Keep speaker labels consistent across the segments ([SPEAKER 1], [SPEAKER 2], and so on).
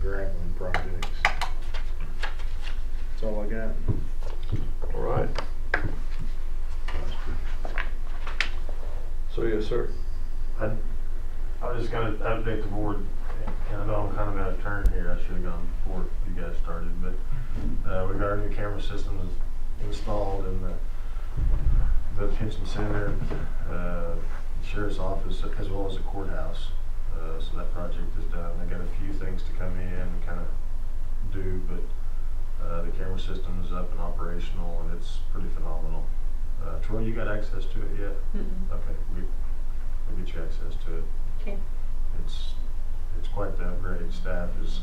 [SPEAKER 1] grappling projects. That's all I got.
[SPEAKER 2] All right. So yes, sir.
[SPEAKER 3] I, I was just gonna update the board, and I know I'm kind of out of turn here, I should've gone before you guys started, but, uh, regarding the camera system is installed in the, the detention center, uh, sheriff's office, as well as the courthouse. Uh, so that project is done, they got a few things to come in and kind of do, but, uh, the camera system is up and operational, and it's pretty phenomenal. Uh, Troy, you got access to it yet?
[SPEAKER 4] Mm-mm.
[SPEAKER 3] Okay, we, we'll get you access to it.
[SPEAKER 4] Okay.
[SPEAKER 3] It's, it's quite the upgrade. Staff is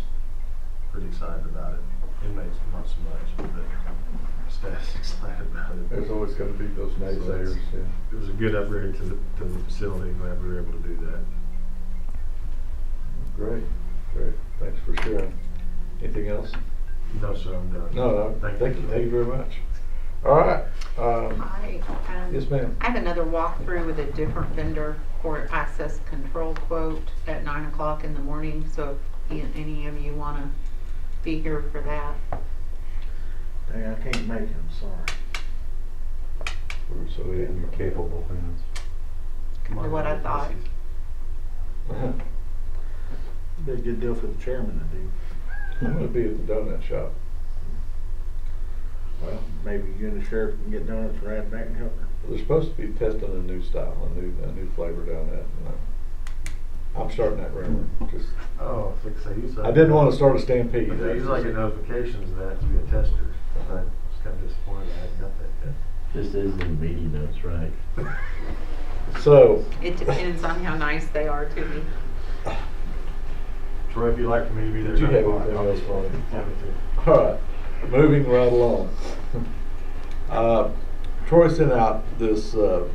[SPEAKER 3] pretty excited about it. Inmates not so much, but staff's excited about it.
[SPEAKER 2] There's always gonna be those naysayers, yeah.
[SPEAKER 3] It was a good upgrade to the, to the facility. Glad we were able to do that.
[SPEAKER 2] Great, great. Thanks for sharing. Anything else?
[SPEAKER 3] No, sir, I'm done.
[SPEAKER 2] No, no, thank you, thank you very much. All right, um,
[SPEAKER 4] I, um,
[SPEAKER 2] yes, ma'am.
[SPEAKER 4] I have another walkthrough with a different vendor for access control quote at nine o'clock in the morning, so if a- any of you wanna be here for that.
[SPEAKER 1] Dang, I can't make it, I'm sorry.
[SPEAKER 2] We're so incapable hands.
[SPEAKER 3] Come on,
[SPEAKER 4] What I thought.
[SPEAKER 1] Be a good deal for the chairman to do.
[SPEAKER 2] I'm gonna be at the donut shop.
[SPEAKER 1] Well, maybe you and the sheriff can get donuts right back and help her.
[SPEAKER 2] They're supposed to be testing a new style, a new, a new flavor down that. and I'm- I'm starting that rumor, just,
[SPEAKER 3] Oh, I think so. He's like.
[SPEAKER 2] I didn't wanna start a stampede.
[SPEAKER 3] He's like get notifications that to be a tester. I was kind of disappointed I hadn't got that
[SPEAKER 5] Just as in meeting notes, right?
[SPEAKER 2] So,
[SPEAKER 4] It depends on how nice they are to me.
[SPEAKER 3] yet. Troy, if you'd like for me to be there.
[SPEAKER 2] Did you have
[SPEAKER 3] I'll-
[SPEAKER 2] anything
[SPEAKER 3] I'll-
[SPEAKER 2] else, Ronnie?
[SPEAKER 3] Yeah, me too.
[SPEAKER 2] All right, moving right along. Uh, Troy sent out this, uh,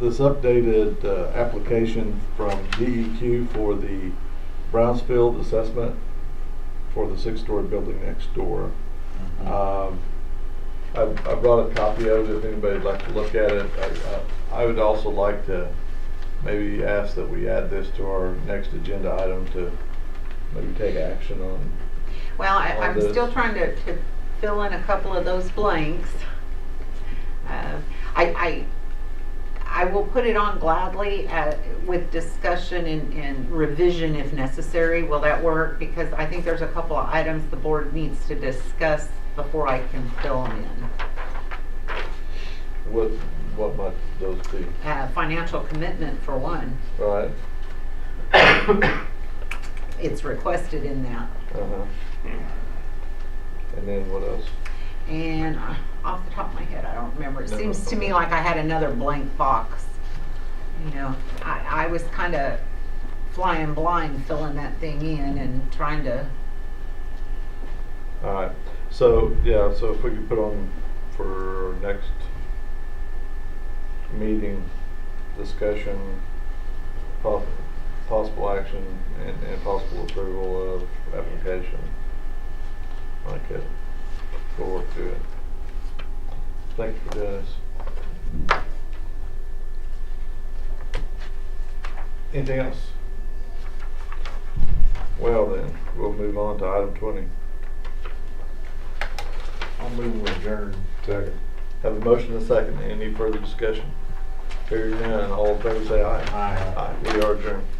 [SPEAKER 2] this updated uh, application from DEQ for the Brownsfield assessment for the six-story building next door. Um, I I brought a copy of it if anybody'd like to look at it. I- I I would also like to maybe ask that we add this to our next agenda item to maybe take action on.
[SPEAKER 4] Well, I,
[SPEAKER 2] All
[SPEAKER 4] I'm
[SPEAKER 2] those.
[SPEAKER 4] still trying to, to fill in a couple of those blanks. Uh, I, I, I will put it on gladly, uh, with discussion and, and revision if necessary. Will that work? Because I think there's a couple of items the board needs to discuss before I can fill them in.
[SPEAKER 2] What, what might those be,
[SPEAKER 4] Uh, financial commitment for one,
[SPEAKER 2] right?
[SPEAKER 4] it's requested in that.
[SPEAKER 2] Uh-huh. And then what else?
[SPEAKER 4] And uh, off the top of my head, I don't remember. It
[SPEAKER 2] No,
[SPEAKER 4] seems
[SPEAKER 2] that's
[SPEAKER 4] to me
[SPEAKER 2] okay.
[SPEAKER 4] like I had another blank box. You know, I, I was kind of flying blind filling that thing in and trying to,
[SPEAKER 2] All right, so, yeah, so if we could put on for next meeting, discussion, po- possible action and, and possible approval of application. I could go work through it. Thank you for doing this. Anything else? Well then, we'll move on to item twenty.
[SPEAKER 1] I'll move with adjourn.
[SPEAKER 2] Second. Have a motion and a second. Any further discussion? Hearing none, all in favor say aye.
[SPEAKER 1] Aye.
[SPEAKER 2] Aye, we are adjourned.